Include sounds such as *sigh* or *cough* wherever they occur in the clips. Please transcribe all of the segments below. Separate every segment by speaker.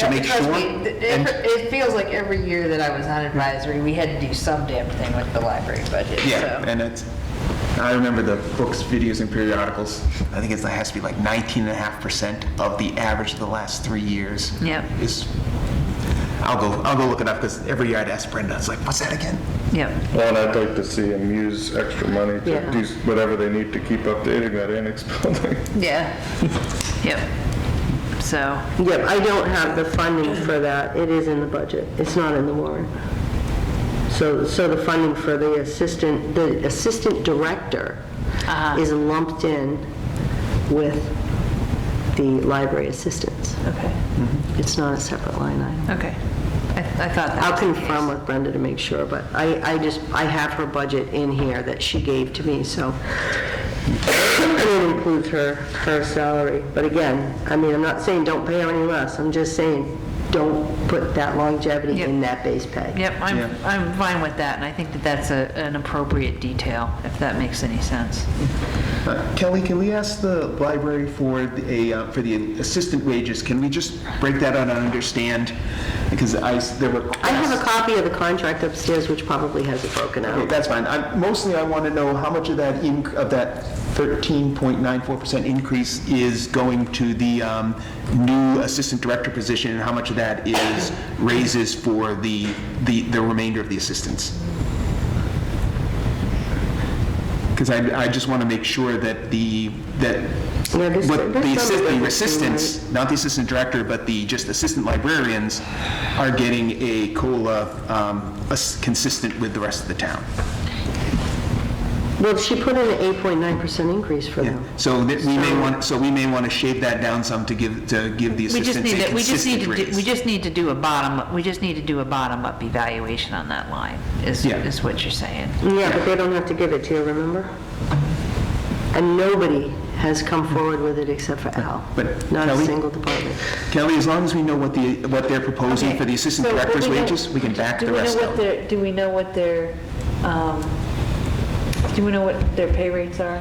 Speaker 1: to make
Speaker 2: Because
Speaker 1: sure.
Speaker 2: we-
Speaker 1: and-
Speaker 2: It it feels like every year that I was on advisory, we had to do some damn thing with the library budget,
Speaker 1: Yeah,
Speaker 2: so.
Speaker 1: and it's, I remember the books, videos, and periodicals. I think it's, it has to be like 19.5% of the average of the last three years.
Speaker 2: Yep.
Speaker 1: Is, I'll go, I'll go look it up, because every year I'd ask Brenda, it's like, what's that again?
Speaker 2: Yep.
Speaker 3: Well, and I'd like to see them use extra money
Speaker 2: Yeah.
Speaker 3: to do whatever they need to keep updating that annex *laughs* building.
Speaker 2: Yeah. Yep. So,
Speaker 4: Yep, I don't have the funding for that. It is in the budget. It's not in the warrant. So, so the funding for the assistant, the assistant director is lumped in with the library assistants.
Speaker 2: okay,
Speaker 4: It's not a separate line item.
Speaker 2: okay. I I thought that
Speaker 4: I'll
Speaker 2: was the
Speaker 4: confirm with Brenda to make sure, but I, I just, I have her budget in here that she gave to me, so it includes her, her salary. But again, I mean, I'm not saying don't pay her any less, I'm just saying, don't put that longevity
Speaker 2: Yep.
Speaker 4: in that base pay.
Speaker 2: case. Yep,
Speaker 1: Yeah.
Speaker 2: I'm, I'm fine with that, and I think that that's a- an appropriate detail, if that makes any sense.
Speaker 1: Uh, *laughs* Kelly, can we ask the library for the- a, uh, for the assistant wages? Can we just break that out and understand? Because I, s- there were.
Speaker 4: I have a copy of the contract upstairs, which probably has it broken
Speaker 1: Okay,
Speaker 4: out.
Speaker 1: that's fine. I- Mostly, I want to know how much of that, inc- of that 13.94% increase is going to the um, new assistant director position, and how much of that is raises for the, the the remainder of the assistants? Because I, I just want to make sure that the, that,
Speaker 4: Yeah, this-
Speaker 1: what the
Speaker 4: this sounds
Speaker 1: assist-
Speaker 4: like
Speaker 1: the
Speaker 4: it's-
Speaker 1: assistants, not the assistant director, but the, just assistant librarians are getting a COLA um, as- consistent with the rest of the town.
Speaker 4: Well, she put in an 8.9% increase for them.
Speaker 1: So that we may want, so we may want to shave that down some to give, to give the
Speaker 2: We just
Speaker 1: assistants
Speaker 2: need
Speaker 1: a
Speaker 2: to, we just need
Speaker 1: consistent
Speaker 2: to, do- we
Speaker 1: raise.
Speaker 2: just need to do a bottom, we just need to do a bottom-up evaluation on that line, is,
Speaker 1: Yeah.
Speaker 2: is what you're saying.
Speaker 4: Yeah, but they don't have to give it to you, remember? And nobody has come forward with it except for Al.
Speaker 1: But
Speaker 4: Not a
Speaker 1: Kelly-
Speaker 4: single department.
Speaker 1: Kelly, as long as we know what the, what they're proposing
Speaker 5: Okay,
Speaker 1: for the assistant
Speaker 5: so what
Speaker 1: director's
Speaker 5: do we know-
Speaker 1: wages, we can back
Speaker 5: do
Speaker 1: the
Speaker 5: we know
Speaker 1: rest
Speaker 5: what
Speaker 1: out.
Speaker 5: their- Do we know what their, um, do we know what their pay rates are?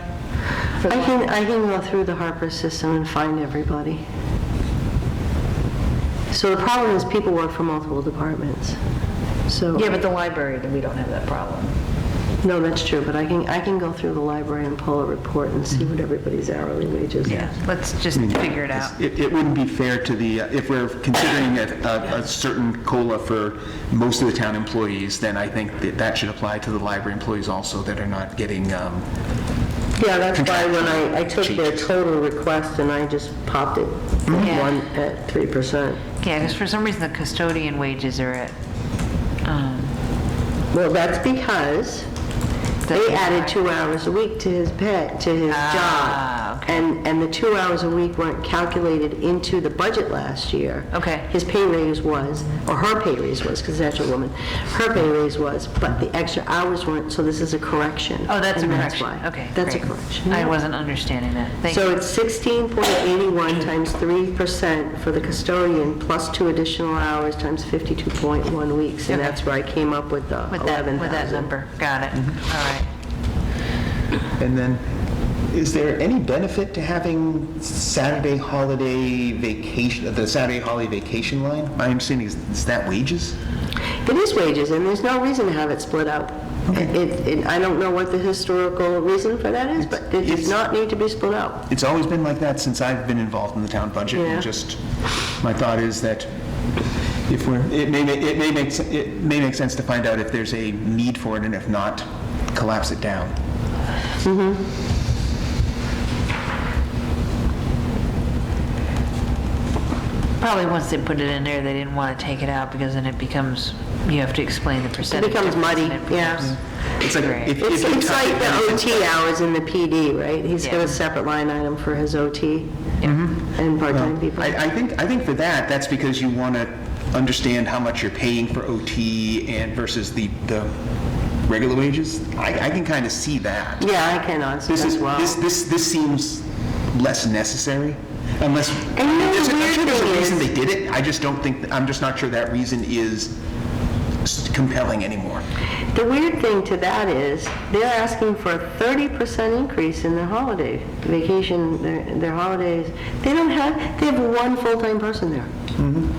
Speaker 5: for the
Speaker 4: I
Speaker 5: line?
Speaker 4: can, I can go through the Harper system and find everybody. So the problem is people work for multiple departments. So,
Speaker 5: Yeah, but the library, we don't have that problem.
Speaker 4: no, that's true, but I can, I can go through the library and pull a report and see what everybody's hourly wages are.
Speaker 2: Yeah, let's just figure it out.
Speaker 1: It, it wouldn't be fair to the, uh, if we're considering a, a, a certain COLA for most of the town employees, then I think that that should apply to the library employees also that are not getting, um,
Speaker 4: Yeah, that's why when I, I took their
Speaker 1: Changes.
Speaker 4: total request and I just popped it
Speaker 2: Yeah.
Speaker 4: one at 3%.
Speaker 2: Yeah, because for some reason, the custodian wages are at, um,
Speaker 4: Well, that's because they added two hours a week to his pay, to his
Speaker 2: Ah,
Speaker 4: job. And, and the two hours a week weren't calculated into the budget last year.
Speaker 2: Okay.
Speaker 4: His pay raise was, or her pay raise was, because that's a woman, her pay
Speaker 2: Mm-hmm.
Speaker 4: raise was, but the extra hours weren't, so this is a correction.
Speaker 2: oh, that's a
Speaker 4: And
Speaker 2: correction.
Speaker 4: why.
Speaker 2: Okay,
Speaker 4: That's a
Speaker 2: great.
Speaker 4: correction.
Speaker 2: I
Speaker 4: yeah.
Speaker 2: wasn't understanding that. Thank
Speaker 4: So
Speaker 2: you.
Speaker 4: it's 16.81 times 3% for the custodian, plus two additional hours times 52.1 weeks. And
Speaker 2: Okay.
Speaker 4: that's where I came up with the
Speaker 2: With that,
Speaker 4: 11,000.
Speaker 2: with that number. Got it. All
Speaker 1: Mm-hmm.
Speaker 2: right.
Speaker 1: And then, is there any benefit to having Saturday holiday vacation, the Saturday holiday vacation line? My understanding is, is that wages?
Speaker 4: It is wages, and there's no reason to have it split out. It, it- I don't know what the historical reason for that is, but it
Speaker 1: It's-
Speaker 4: does not need to be split out.
Speaker 1: It's always been like that since I've been involved in the town budget.
Speaker 4: Yeah.
Speaker 1: And just, my thought is that if we're, it may, ma- it may make, se- it may make sense to find out if there's a need for it, and if not, collapse it down.
Speaker 2: Probably once they put it in there, they didn't want to take it out because then it becomes, you have to explain the percentage.
Speaker 4: becomes
Speaker 2: difference
Speaker 4: muddy,
Speaker 2: and it becomes-
Speaker 1: It's like,
Speaker 2: Right.
Speaker 1: if, if
Speaker 4: It's
Speaker 1: you
Speaker 4: it's
Speaker 1: tuck it
Speaker 4: like the
Speaker 1: in, it's-
Speaker 4: OT hours in the PD, right? He's got
Speaker 2: Yeah.
Speaker 4: a separate line item for his OT and part-time people.
Speaker 1: Mm-hmm. I, I think, I think for that, that's because you want to understand how much you're paying for OT and versus the, the regular wages. I, I can kind of see that.
Speaker 4: Yeah, I can answer
Speaker 1: This
Speaker 4: as
Speaker 1: is,
Speaker 4: well.
Speaker 1: this, this, this seems less necessary, unless.
Speaker 4: And you know the
Speaker 1: there's a- I'm
Speaker 4: weird
Speaker 1: sure there's a
Speaker 4: thing
Speaker 1: reason
Speaker 4: is-
Speaker 1: They did it, I just don't think, I'm just not sure that reason is compelling anymore.
Speaker 4: The weird thing to that is, they're asking for a 30% increase in their holiday vacation, their their holidays. They don't have, they have one full-time person there.